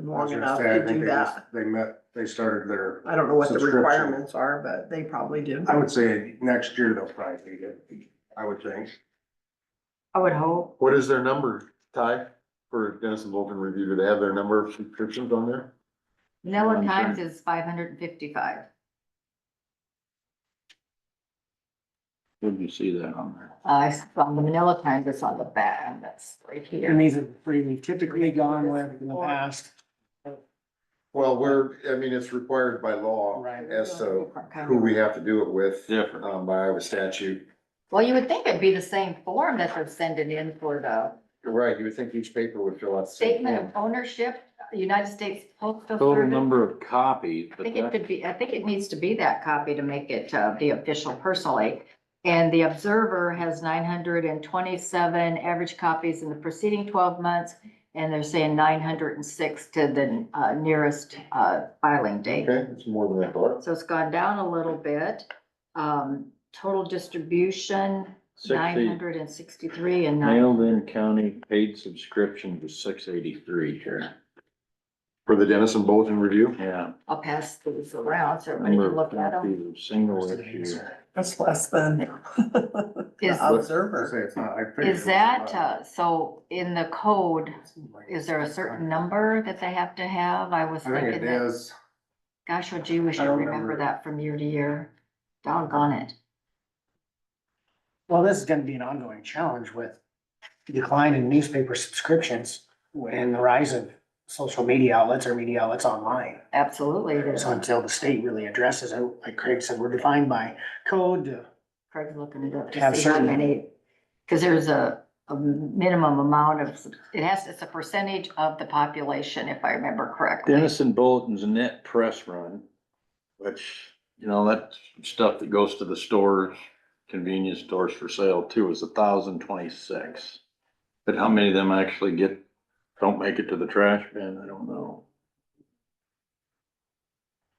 been long I enough understand. I to think do they just- that. They met, they started their, I don't know what the Subscription. requirements are, but they probably do. I would say next year they'll probably need it, I would think. I would hope. What is their number, Ty, for Dennis and Vulcan Review? Do they have their number of subscriptions on there? Manila I'm Times is five hundred and fifty-five. Where'd you see that on there? I found the Manila Times, it's on the back, and that's right And here. these are really typically gone with in the past. Well, we're, I mean, it's required by law Right. as to who we have to do it with, Different. um, by Iowa statute. Well, you would think it'd be the same form that they're sending in for the You're right, you would think each paper would fill out the same statement of form. ownership, United States Postal Total Service. number of copies, I but think it that, could be, I think it needs to be that copy to make it uh, the official personally. And the Observer has nine hundred and twenty-seven average copies in the preceding twelve months, and they're saying nine hundred and six to the uh, nearest uh, filing date. Okay, it's more than I thought. So it's gone down a little bit. Um, Total distribution, nine sixty hundred and sixty-three and nine. mailed-in county paid subscription was six eighty-three here. For the Dennis and Bulletin Review? Yeah. I'll pass these around so everybody Number can of look at them. copies of single issue. That's less than Is, the I say observer. it's not, I think. is that, uh, so in the code, Is there a certain number that they have to have? I was I think it thinking that, is. gosh, oh gee, we should don't remember remember. that from year to year. Doggone it. Well, this is gonna be an ongoing challenge with decline in newspaper subscriptions and the rise of social media outlets or media outlets online. Absolutely. it is. So until the state really addresses it, like Craig said, we're defined by code. to- Craig's looking it up To have to see how certain- many, because there's a, a minimum amount of, subs- it has, it's a percentage of the population, if I remember correctly. Denison Bulletin's net press run, which, you know, that stuff that goes to the stores, convenience stores for sale too, is a thousand twenty-six. But how many of them actually get, don't make it to the trash bin, I don't know.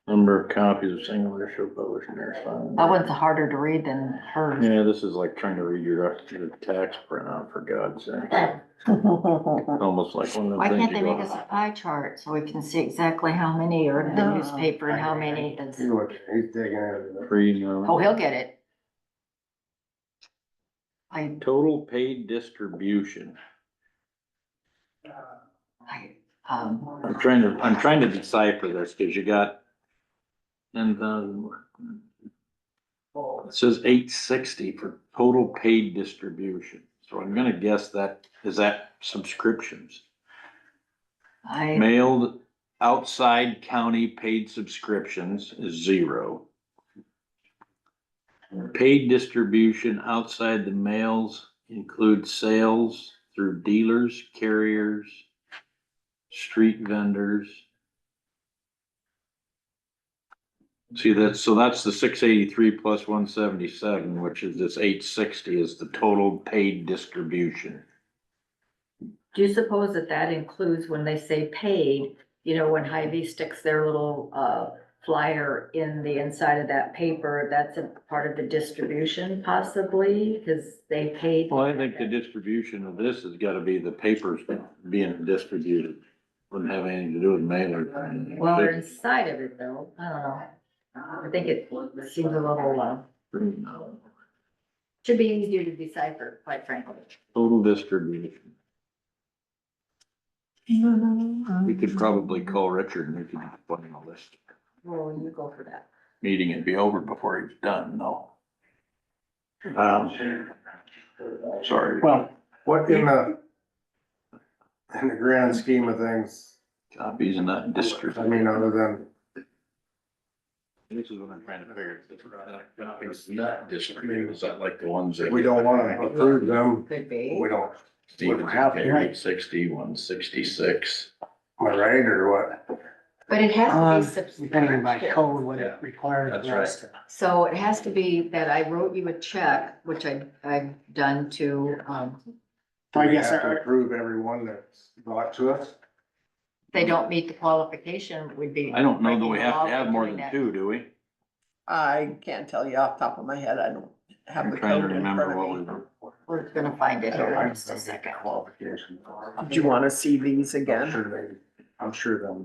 Number of copies of single issue published in their sign. That one's harder to read than hers. Yeah, this is like trying to read your, your tax printout, for God's sake, Well, almost like one of Why the things can't you they make us go. a pie chart so we can see exactly how many are in the Yeah. newspaper and how many is? He looked, he's digging into Free, you know. Oh, he'll get it. I Total paid distribution. I, um, I'm trying to, I'm trying to decipher this, cause you got. And then. It says eight sixty for total paid distribution, so I'm gonna guess that, is that subscriptions? I, Mailed outside county paid subscriptions is zero. Paid distribution outside the mails includes sales through dealers, carriers, street vendors. See, that's, so that's the six eighty-three plus one seventy-seven, which is this eight sixty is the total paid distribution. do you suppose that that includes when they say paid, you know, when Hy-Vee sticks their little, uh, flyer in the inside of that paper, that's a part of the distribution possibly, because they paid. Well, I think the distribution of this has gotta be the papers being distributed, wouldn't have anything to do with mailer. Well, they're inside of it though, I don't know. I think it seems a little, uh, should be easier to decipher, quite frankly. Total distribution, we could probably call Richard and we could explain all this, Well, you go for that. meeting would be over before he's done, no. Um, sorry, Well, What in the, in the grand scheme of things, copies and not distributed. I mean, other than, This is what I'm trying to figure. It's not distributed, is that like the ones that? we don't wanna approve them, Could be. we don't, Stevens, Copy, eight sixty, one sixty-six. am I right, or what? But it um, has to be depending by subscription. code, what it Yeah, requires. that's us to- So it has to be that I wrote you a check, which I, I've done to, um, So I We guess have to our- approve everyone that's brought to us. if they don't meet the qualification, we'd be. I don't know that we breaking the have law to have by more doing than that. two, do we? I can't tell you off the top of my head. I don't have I'm the trying to code in front remember of what me. we were. We're gonna find it I don't here in like just a them. second. Qualification. Do you wanna see these again? Sure I'm sure they'll